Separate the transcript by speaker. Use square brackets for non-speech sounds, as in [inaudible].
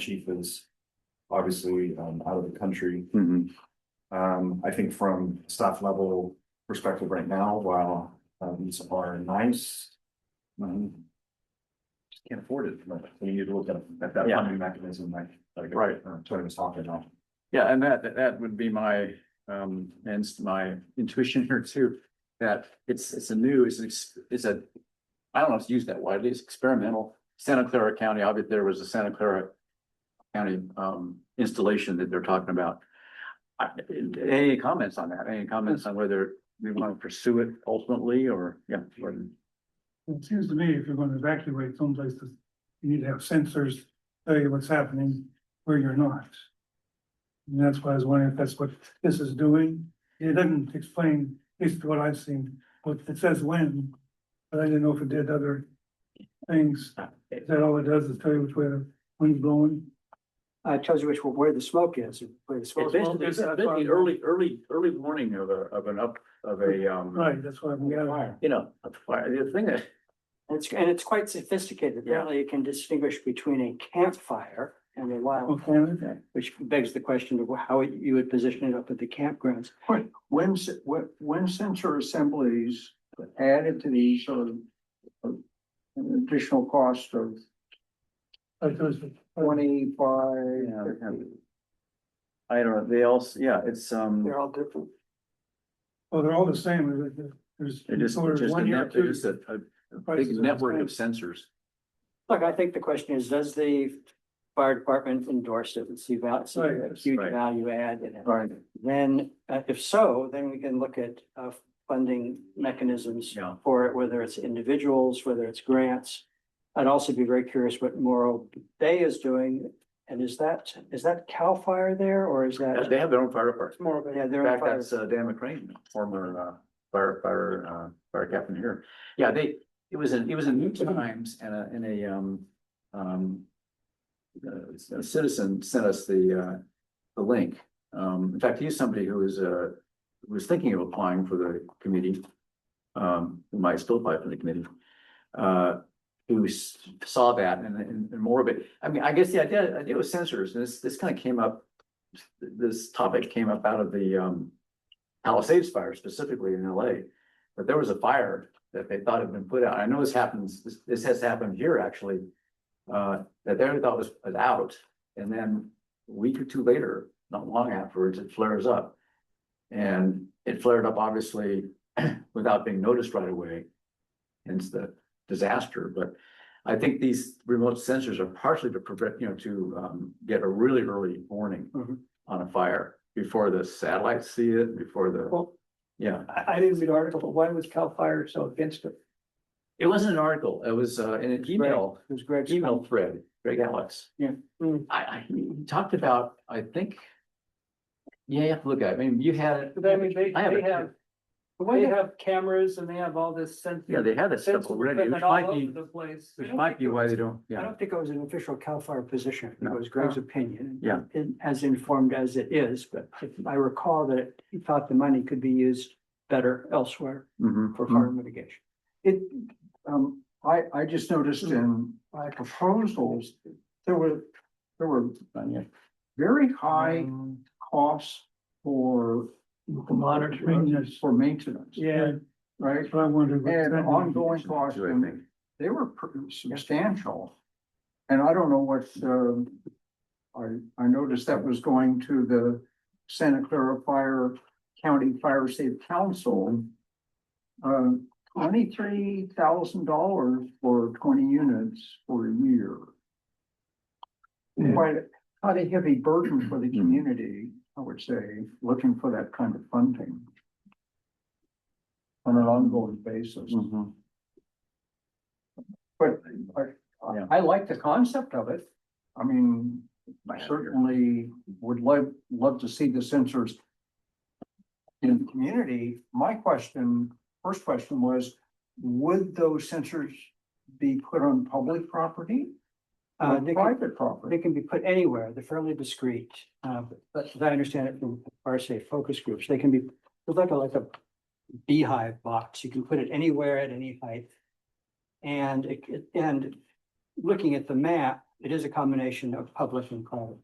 Speaker 1: chief is obviously um out of the country.
Speaker 2: Mhm.
Speaker 1: Um, I think from staff level perspective right now, while uh, these are nice. um, Just can't afford it, but we need to look at at that
Speaker 2: Yeah.
Speaker 1: funding mechanism like like
Speaker 2: Right.
Speaker 1: uh, Tony was talking about.
Speaker 2: Yeah, and that, that would be my, um, and my intuition here too, that it's, it's a new, it's, an ex- it's a. I don't know if it's used that widely, it's experimental. Santa Clara County, obviously, there was a Santa Clara. County, um, installation that they're talking about. I, any comments on that? Any comments on whether we want to pursue it ultimately or, yeah, or-
Speaker 3: It seems to me if you're gonna evacuate someplace, that you need to have sensors tell you what's happening where you're not. And that's why I was wondering if that's what this is doing. It doesn't explain, at least what I've seen, but it says when, but I didn't know if it did other things. Is that all it does is tell you which way the wind's blowing?
Speaker 4: Uh, it tells you which, where the smoke is, where the
Speaker 2: It's
Speaker 4: smoke. is.
Speaker 2: basically, it's basically early, early, early warning of a, of an up, of a, um.
Speaker 3: Right, that's why we gotta,
Speaker 2: You know, a fire, the thing that.
Speaker 4: And It's, and it's quite sophisticated. Apparently it can distinguish between a campfire and a wild,
Speaker 2: Oh.
Speaker 3: okay, okay.
Speaker 4: which begs the question of how you would position it up at the campgrounds.
Speaker 5: When, s- when, when sensor assemblies added to these sort of uh, an additional cost of
Speaker 3: Like those-
Speaker 2: Yeah,
Speaker 4: eh,
Speaker 5: twenty-five,
Speaker 2: yeah. I don't know, they also, yeah, it's, um,
Speaker 4: They're all different.
Speaker 3: Well, they're all the same. There's.
Speaker 2: it is,
Speaker 3: there's
Speaker 2: just a
Speaker 3: one year,
Speaker 2: net,
Speaker 3: two
Speaker 2: just
Speaker 3: year,
Speaker 2: a, a
Speaker 3: the prices
Speaker 2: big
Speaker 3: are the
Speaker 2: network
Speaker 3: same.
Speaker 2: of sensors.
Speaker 4: Look, I think the question is, does the fire department endorse it and see val, see a
Speaker 3: Right,
Speaker 4: huge
Speaker 2: right.
Speaker 4: value add in it?
Speaker 2: Right.
Speaker 4: Then, uh, if so, then we can look at, uh, funding mechanisms.
Speaker 2: Yeah,
Speaker 4: for it, whether it's individuals, whether it's grants. I'd also be very curious what Morro Bay is doing. And is that, is that CAL FIRE there or is
Speaker 2: Uh,
Speaker 4: that?
Speaker 2: they have their own fire department.
Speaker 4: Morro Bay, yeah,
Speaker 2: In
Speaker 4: they're on
Speaker 2: fact,
Speaker 4: fire.
Speaker 2: that's uh, Dan McCrane, former uh, fire, fire, uh, fire captain here. Yeah, they, it was in, it was in New Times and a, and a, um, um, uh, a citizen sent us the, uh, the link. Um, in fact, he's somebody who is, uh, was thinking of applying for the committee. Um, who might still apply for the committee. Uh, who s- saw that and, and and more of it. I mean, I guess the idea, idea was sensors, and this, this kind of came up this topic came up out of the um Palisades fire specifically in LA. But there was a fire that they thought had been put out. I know this happens, this this has happened here actually. Uh, that they thought was was out and then a week or two later, not long afterwards, it flares up. And it flared up obviously [clears throat] without being noticed right away. Hence the disaster, but I think these remote sensors are partially to prevent, you know, to um get a really early warning on a fire before the satellites see it, before the,
Speaker 4: Well-
Speaker 2: yeah.
Speaker 4: I, I didn't read the article, but why was CAL FIRE so against it?
Speaker 2: It wasn't an article, it was uh, in an email,
Speaker 4: It was Greg's.
Speaker 2: email thread, Greg Alex.
Speaker 4: Yeah. Mm.
Speaker 2: I, I, he talked about, I think, yeah, you have to look at it, I mean, you had it.
Speaker 6: But I mean, they,
Speaker 2: I have
Speaker 6: they
Speaker 2: it too.
Speaker 6: have, they have cameras and they have all this sense.
Speaker 2: Yeah, they had that stuff
Speaker 6: Sensible
Speaker 2: already, which
Speaker 6: equipment all
Speaker 2: might
Speaker 6: over
Speaker 2: be,
Speaker 6: the place.
Speaker 2: which might be why they don't,
Speaker 4: I
Speaker 2: yeah.
Speaker 4: don't think it was an official CAL FIRE position. It
Speaker 2: No.
Speaker 4: was Greg's opinion.
Speaker 2: Yeah.
Speaker 4: And as informed as it is, but I recall that he thought the money could be used better elsewhere
Speaker 2: Mhm.
Speaker 4: for fire mitigation.
Speaker 5: it, um, I, I just noticed in my proposals, there were, there were very high
Speaker 3: Mm-hmm.
Speaker 5: costs for monitoring,
Speaker 3: Maintenance.
Speaker 5: for maintenance,
Speaker 3: Yeah,
Speaker 5: right?
Speaker 3: that's what I wondered. what
Speaker 5: And
Speaker 3: that
Speaker 5: ongoing
Speaker 3: means.
Speaker 5: costs,
Speaker 2: Do I
Speaker 5: and
Speaker 2: think?
Speaker 5: they were pretty substantial. And I don't know what, um, I, I noticed that was going to the Santa Clara Fire County Fire Safe Council. Um, twenty-three thousand dollars for twenty units for a year.
Speaker 3: Yeah.
Speaker 5: Quite, a- quite a heavy burden for the community, I would say, looking for that kind of funding. On an ongoing basis.
Speaker 2: Mhm.
Speaker 5: But I,
Speaker 2: Yeah.
Speaker 5: I- I like the concept of it. I mean, I certainly would love, love to see the sensors in the community. My question, first question was, would those sensors be put on public property
Speaker 4: Uh,
Speaker 5: or
Speaker 4: Nick-
Speaker 5: private
Speaker 4: They
Speaker 5: property?
Speaker 4: can be put anywhere. They're fairly discreet. Uh, but as I understand it from our say focus groups, they can be, it's like a, like a beehive box. You can put it anywhere at any height. And it, it- and looking at the map, it is a combination of public and private.